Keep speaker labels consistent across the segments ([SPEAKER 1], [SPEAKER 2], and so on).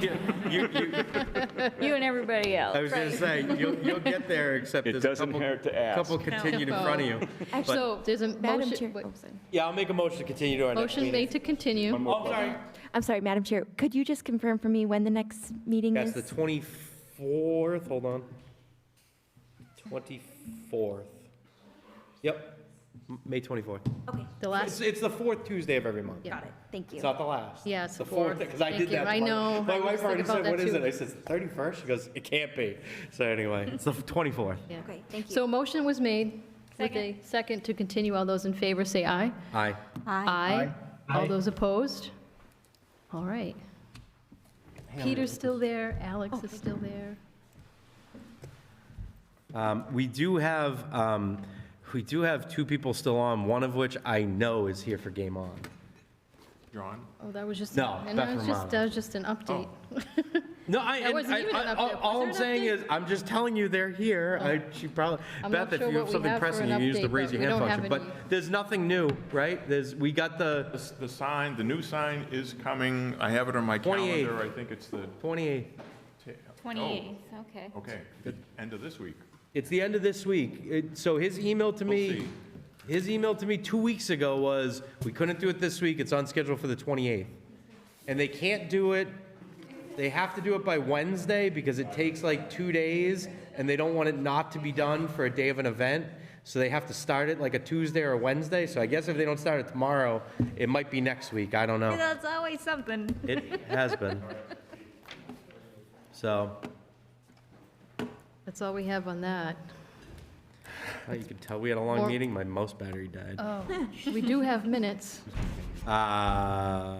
[SPEAKER 1] Yeah, you- you-
[SPEAKER 2] You and everybody
[SPEAKER 1] I
[SPEAKER 2] else.
[SPEAKER 1] was going to say, you'll, you'll get there, except
[SPEAKER 3] It
[SPEAKER 1] there's a
[SPEAKER 3] doesn't
[SPEAKER 1] couple,
[SPEAKER 3] hurt to ask.
[SPEAKER 1] couple continued in front of you. But
[SPEAKER 4] Actually,
[SPEAKER 5] So there's a
[SPEAKER 4] Madam Chair-
[SPEAKER 5] motion, wait,
[SPEAKER 4] oh,
[SPEAKER 6] Yeah, I'll make a motion to continue to our next
[SPEAKER 5] motion
[SPEAKER 6] meeting.
[SPEAKER 5] made to continue.
[SPEAKER 3] One more
[SPEAKER 6] Oh, I'm sorry.
[SPEAKER 4] I'm sorry, Madam Chair, could you just confirm for me when the next meeting
[SPEAKER 6] That's
[SPEAKER 4] is?
[SPEAKER 6] the 24th, hold on. 24th. Yep, M- May 24th.
[SPEAKER 4] Okay,
[SPEAKER 5] The
[SPEAKER 6] It's,
[SPEAKER 5] last,
[SPEAKER 6] it's the fourth Tuesday of every month.
[SPEAKER 5] Yeah.
[SPEAKER 4] got it, thank you.
[SPEAKER 6] It's not the last.
[SPEAKER 5] Yeah, it's
[SPEAKER 6] The
[SPEAKER 5] the fourth.
[SPEAKER 6] fourth, because I
[SPEAKER 5] Thank
[SPEAKER 6] did
[SPEAKER 5] you.
[SPEAKER 6] that.
[SPEAKER 5] I
[SPEAKER 6] to my-
[SPEAKER 5] know. I
[SPEAKER 6] My
[SPEAKER 5] was
[SPEAKER 6] wife already
[SPEAKER 5] thinking about
[SPEAKER 6] said,
[SPEAKER 5] that
[SPEAKER 6] what is
[SPEAKER 5] too."
[SPEAKER 6] it? I said, "It's the 31st? She goes, it can't be. So anyway, it's the 24th.
[SPEAKER 5] yeah.
[SPEAKER 4] Okay, thank you.
[SPEAKER 5] So a motion was made with a second to continue. All those in favor say aye.
[SPEAKER 1] Aye.
[SPEAKER 2] uh,
[SPEAKER 5] Aye. All those opposed? All right. Peter's still there, Alex is still there.
[SPEAKER 1] Um, We do have, um, we do have two people still on, one of which I know is here for Game On.
[SPEAKER 5] Oh, that was just.
[SPEAKER 1] No,
[SPEAKER 5] And that
[SPEAKER 1] Beth
[SPEAKER 5] was just,
[SPEAKER 1] Romano.
[SPEAKER 5] that was just an update. Oh.
[SPEAKER 1] No, I,
[SPEAKER 5] That
[SPEAKER 1] and
[SPEAKER 5] wasn't
[SPEAKER 1] I-
[SPEAKER 5] even an
[SPEAKER 1] I-
[SPEAKER 5] update.
[SPEAKER 1] all, all I'm
[SPEAKER 5] Was there an
[SPEAKER 1] saying
[SPEAKER 5] update? Oh.
[SPEAKER 1] is, I'm just telling you they're here. I, she probably,
[SPEAKER 5] I'm not
[SPEAKER 1] Beth, if
[SPEAKER 5] sure
[SPEAKER 1] you
[SPEAKER 5] what
[SPEAKER 1] have
[SPEAKER 5] we
[SPEAKER 1] something
[SPEAKER 5] have for
[SPEAKER 1] pressing,
[SPEAKER 5] an
[SPEAKER 1] you use the
[SPEAKER 5] update,
[SPEAKER 1] raise
[SPEAKER 5] but
[SPEAKER 1] your
[SPEAKER 5] we
[SPEAKER 1] hand
[SPEAKER 5] don't have
[SPEAKER 1] function. But
[SPEAKER 5] any.
[SPEAKER 1] there's nothing new, right? There's, we got the
[SPEAKER 3] The- The sign, the new sign is coming. I have it on my
[SPEAKER 1] 28th.
[SPEAKER 3] calendar. I think it's the.
[SPEAKER 1] 28th.
[SPEAKER 3] ta- oh,
[SPEAKER 2] 28th, okay.
[SPEAKER 3] Okay, the end of this week.
[SPEAKER 1] It's the end of this week. It- So his email to
[SPEAKER 3] We'll
[SPEAKER 1] me,
[SPEAKER 3] see.
[SPEAKER 1] his email to me two weeks ago was, we couldn't do it this week, it's on schedule for the 28th. And they can't do it, they have to do it by Wednesday because it takes like two days and they don't want it not to be done for a day of an event. So they have to start it like a Tuesday or a Wednesday. So I guess if they don't start it tomorrow, it might be next week. I don't know.
[SPEAKER 2] That's always something.
[SPEAKER 1] It has been. So,
[SPEAKER 5] That's all we have on that.
[SPEAKER 1] uh, you can tell we had a long
[SPEAKER 5] Or-
[SPEAKER 1] meeting, my mouse battery died.
[SPEAKER 5] Oh, we do have minutes.
[SPEAKER 1] Uh,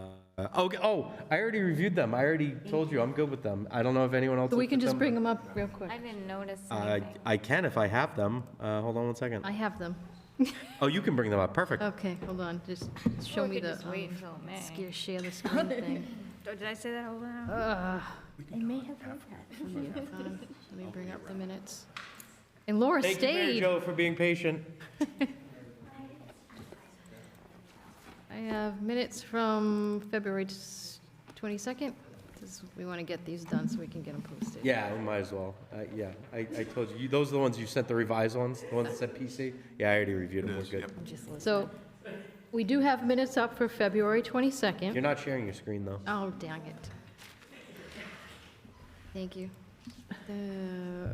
[SPEAKER 1] okay. Oh, I already reviewed them. I already told you I'm good with them. I don't know if anyone else.
[SPEAKER 5] So we
[SPEAKER 1] looked
[SPEAKER 5] can
[SPEAKER 1] at
[SPEAKER 5] just
[SPEAKER 1] them,
[SPEAKER 5] bring them up real quick.
[SPEAKER 2] I didn't notice
[SPEAKER 1] but- Uh,
[SPEAKER 2] anything.
[SPEAKER 1] I can if I have them. Uh, hold on one second.
[SPEAKER 5] I Uh, have them.
[SPEAKER 1] Oh, you can bring them up. Perfect.
[SPEAKER 5] Okay, hold on, just show
[SPEAKER 2] we
[SPEAKER 5] me
[SPEAKER 2] could
[SPEAKER 5] the.
[SPEAKER 2] just wait
[SPEAKER 5] um,
[SPEAKER 2] until May.
[SPEAKER 5] scare- Share the screen thing.
[SPEAKER 2] Oh, Did I say that over and
[SPEAKER 5] Ugh.
[SPEAKER 4] I may have heard that.
[SPEAKER 5] Um, Let me bring up the minutes. And Laura
[SPEAKER 1] Thank you, Mary
[SPEAKER 5] stayed.
[SPEAKER 1] Jo, for being patient.
[SPEAKER 5] I have minutes from February s- 22nd. This- We want to get these done so we can get them posted.
[SPEAKER 1] Yeah, we might as well. Uh, yeah, I, I told you. you. Those are the ones you sent the revised ones. The ones that said PC. Yeah, I already reviewed them. We're
[SPEAKER 3] Yes,
[SPEAKER 1] good.
[SPEAKER 3] yep.
[SPEAKER 5] So we do have minutes up for February 22nd.
[SPEAKER 1] You're not sharing your screen though.
[SPEAKER 5] Oh, dang it. Thank you. Uh,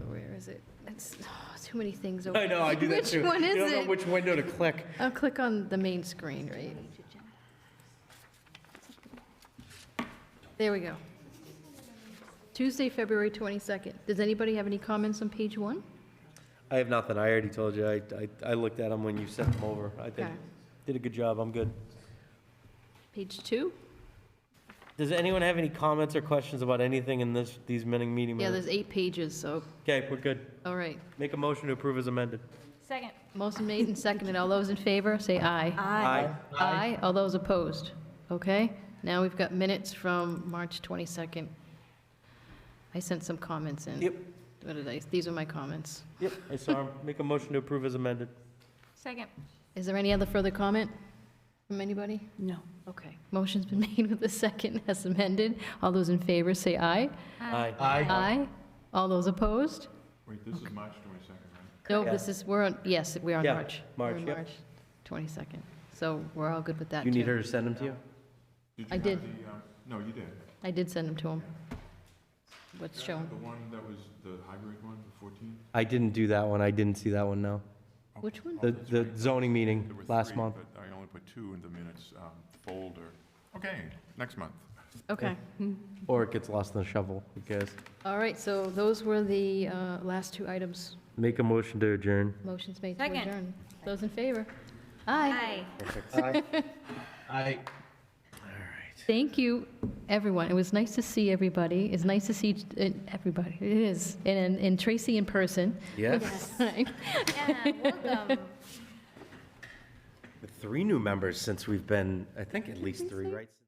[SPEAKER 5] Where is it? That's, oh, too many things. over-
[SPEAKER 1] I know. I do that too.
[SPEAKER 5] Which one
[SPEAKER 1] You
[SPEAKER 5] is
[SPEAKER 1] don't know
[SPEAKER 5] it?
[SPEAKER 1] which window to click.
[SPEAKER 5] I'll click on the main screen, right? There we go. Tuesday, February 22nd. Does anybody have any comments on page one?
[SPEAKER 1] I have nothing. I already told you. I, I, I looked at them when you sent them over. I think
[SPEAKER 5] Okay.
[SPEAKER 1] did a good job. I'm good.
[SPEAKER 5] Page two?
[SPEAKER 1] Does anyone have any comments or questions about anything in this, these meeting meeting
[SPEAKER 5] Yeah,
[SPEAKER 1] minutes?
[SPEAKER 5] there's eight pages, so,
[SPEAKER 1] Okay, we're good.
[SPEAKER 5] all right.
[SPEAKER 1] Make a motion to approve as amended.
[SPEAKER 2] Second.
[SPEAKER 5] Motion made and seconded. All those in favor, say aye.
[SPEAKER 1] Aye.
[SPEAKER 5] Aye. All those opposed? Okay, now we've got minutes from March 22nd. I sent some comments in.
[SPEAKER 1] Yep.
[SPEAKER 5] What did I, these are my comments.
[SPEAKER 1] Yep, I saw him. Make a motion to approve as amended.
[SPEAKER 2] Second.
[SPEAKER 5] Is there any other further comment from anybody?
[SPEAKER 4] No.
[SPEAKER 5] Okay, motion's been made with the second as amended. All those in favor, say aye.
[SPEAKER 1] Aye.
[SPEAKER 5] Aye. All those opposed?
[SPEAKER 3] Wait, this is March 22nd,
[SPEAKER 5] No,
[SPEAKER 3] right?
[SPEAKER 5] this is, we're on, yes, we're on
[SPEAKER 1] Yeah,
[SPEAKER 5] March.
[SPEAKER 1] March,
[SPEAKER 5] We're on
[SPEAKER 1] yep.
[SPEAKER 5] March 22nd. So we're all good with that,
[SPEAKER 1] You need
[SPEAKER 5] too.
[SPEAKER 1] her to send them to you?
[SPEAKER 3] Did
[SPEAKER 5] I
[SPEAKER 3] you have
[SPEAKER 5] did.
[SPEAKER 3] the, uh, No, you did.
[SPEAKER 5] I did send them to him. What's shown?
[SPEAKER 3] The one that was the hybrid one, the 14th?
[SPEAKER 1] I didn't do that one. I didn't see that one, no.
[SPEAKER 5] Which one?
[SPEAKER 1] The, the zoning meeting
[SPEAKER 3] There were
[SPEAKER 1] last
[SPEAKER 3] three,
[SPEAKER 1] month.
[SPEAKER 3] But I only put two in the minutes um, folder. Okay, next month.
[SPEAKER 5] Okay.
[SPEAKER 1] Or it gets lost in the shovel, who cares?
[SPEAKER 5] All right, so those were the uh, last two items.
[SPEAKER 1] Make a motion to adjourn.
[SPEAKER 5] Motion's made to
[SPEAKER 2] Second.
[SPEAKER 5] adjourn. Those in favor? Aye.
[SPEAKER 2] Aye.
[SPEAKER 5] Thank you, everyone. It was nice to see everybody. It's nice to see uh, everybody. It is. And and Tracy in person.
[SPEAKER 1] Yes,
[SPEAKER 2] Yeah, welcome.
[SPEAKER 1] with three new members since we've been, I think at least three, right?